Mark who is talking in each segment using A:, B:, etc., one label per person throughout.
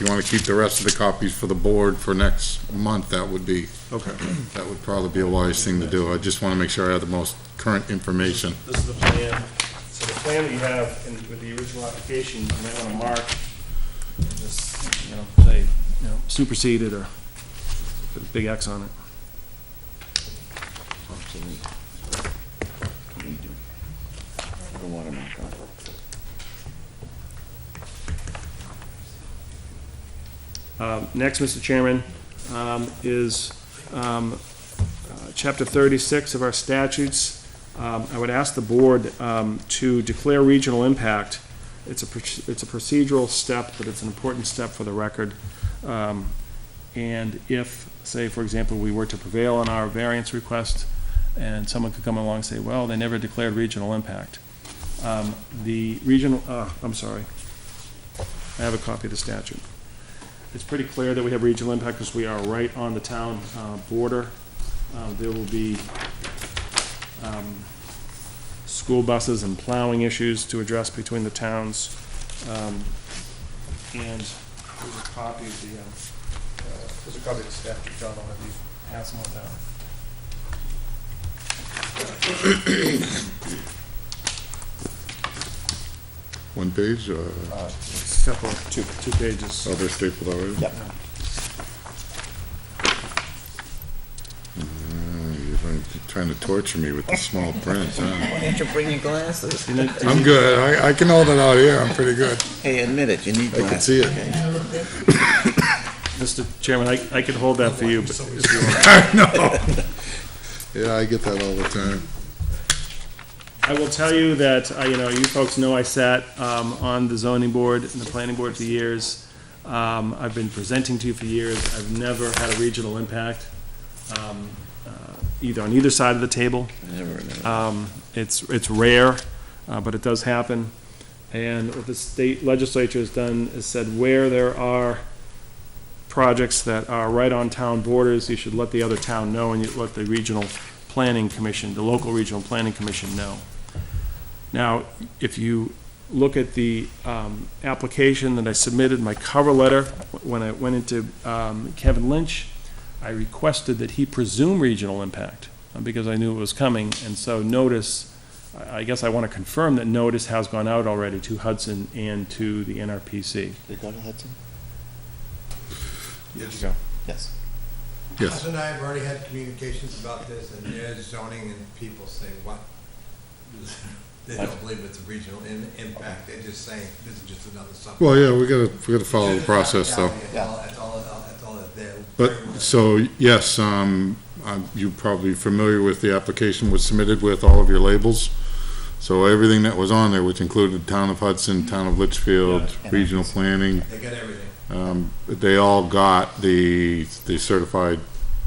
A: If you want to keep the rest of the copies for the board for next month, that would be,
B: Okay.
A: that would probably be a wise thing to do. I just want to make sure I have the most current information.
C: This is the plan, so the plan that you have in, with the original application, you might wanna mark, and just, you know, say, you know, superseded or put a big X on it. Um, Next, Mr. Chairman, um, is um, uh, Chapter 36 of our statutes. Um, I would ask the board um, to declare regional impact. It's a, proc- it's a procedural step, but it's an important step for the record. Um, And if, say, for example, we were to prevail on our variance request, and someone could come along and say, well, they never declared regional impact. Um, The regional, uh, I'm sorry. I have a copy of the statute it's pretty clear that we have regional impact because we are right on the town uh, border. Uh, There will be um, school buses and plowing issues to address between the towns. Um, And there's a copy of the, um, uh, there's a copy of the statute, John, I'll have you pass them on down.
A: One page, uh,
C: Couple, two, two pages.
A: other staple already?
D: Yep.
A: Uh, You're trying to torture me with the small print, huh?
D: Why don't you bring your glasses?
C: Didn't it-
A: I'm good. I, I can hold it out here. I'm pretty good.
D: Hey, admit it, you need
A: I
D: glasses.
A: can see it.
D: okay?
C: Mr. Chairman, I, I could hold that for you, but if you want.
A: Yeah, I get that all the time.
C: I will tell you that, uh, you know, you folks know I sat um, on the zoning board and the planning board for years. Um, I've been presenting to you for years. I've never had a regional impact, um, uh, either on either side of the table.
D: I never remember.
A: Ah.
C: Um, It's, it's rare, uh, but it does happen. And what the state legislature has done is said where there are projects that are right on town borders, you should let the other town know and you let the regional planning commission, the local regional planning commission know. Now, if you look at the um, application that I submitted, my cover letter, when I went into um, Kevin Lynch, I requested that he presume regional impact uh, because I knew it was coming, and so notice, I I guess I want to confirm that notice has gone out already to Hudson and to the NRPC.
D: Did it go to Hudson?
C: Yes. go.
D: Yes.
A: Yes.
E: Hudson and I have already had communications about this, and there's zoning and people say, what? They don't believe it's a regional in- impact, they're just saying, this is just another subject.
A: Well, yeah, we gotta, we gotta follow the process though.
E: That's all, that's all, that's all that they're.
A: But, so, yes, um, um, you're probably familiar with the application was submitted with all of your labels. So everything that was on there, which included Town of Hudson, Town of Litchfield,
D: Yeah.
A: Regional Planning,
E: They got everything.
A: um, they all got the, the certified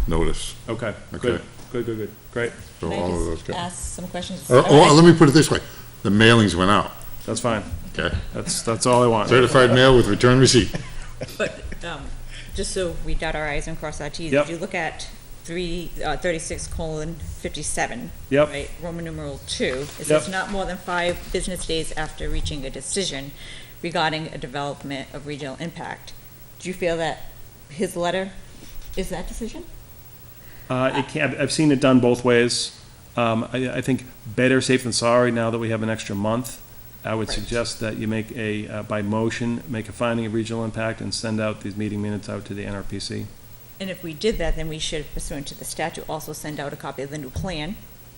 A: notice.
C: Okay, good,
A: Okay.
C: good, good, good, great,
A: So
F: Can
A: all of
F: I
A: those
F: just
A: got.
F: ask some questions?
C: Uh,
A: Oh,
F: Alright.
A: oh, let me put it this way. The mailings went out,
C: that's fine,
A: okay?
C: that's, that's all I want.
A: Certified mail with return receipt.
F: But, um, just so we dot our i's and cross our t's,
C: Yep.
F: if you look at three, uh, thirty-six colon fifty-seven.
C: Yep.
F: Right, Roman numeral two, it says
C: Yep.
F: not more than five business days after reaching a decision regarding a development of regional impact. Do you feel that his letter is that decision?
C: Uh, it can, I've- I've seen it done both ways. Um, I, I think better safe than sorry now that we have an extra month. I would
F: Right.
C: suggest that you make a, uh, by motion, make a finding of regional impact and send out these meeting minutes out to the NRPC.
F: And if we did that, then we should pursuant to the statute also send out a copy of the new plan.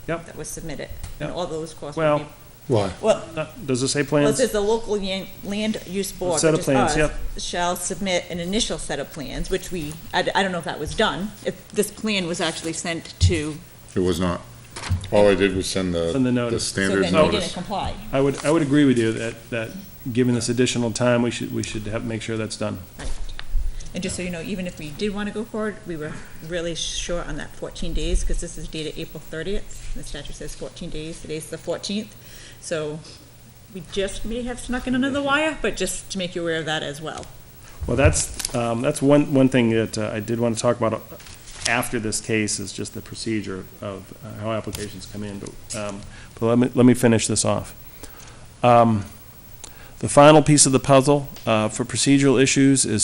C: Yep.
F: That was submitted, and
C: Yep.
F: all those costs
C: Well,
F: would be.
A: Why?
F: Well,
C: Uh, Does it say
F: Well,
C: plans?
F: it says the local yan- land use board,
C: Set of
F: which is
C: plans,
F: us,
C: yep.
F: shall submit an initial set of plans, which we, I, d- I don't know if that was done, if this plan was actually sent to,
A: It was not. All I did was send the,
C: Send the
A: the
C: notice.
F: so
A: standard
F: then you didn't
A: notice.
F: comply.
C: I would, I would agree with you that, that, given this additional time, we should, we should have, make sure that's done.
F: Right. And just so you know, even if we did want to go forward, we were really short on that fourteen days, because this is dated April thirtieth, the statute says fourteen days, today's the fourteenth, so we just may have snuck in another wire, but just to make you aware of that as well.
C: Well, that's, um, that's one, one thing that uh, I did want to talk about after this case is just the procedure of uh, how applications come in, but, um, but let me, let me finish this off. Um, The final piece of the puzzle, uh, for procedural issues is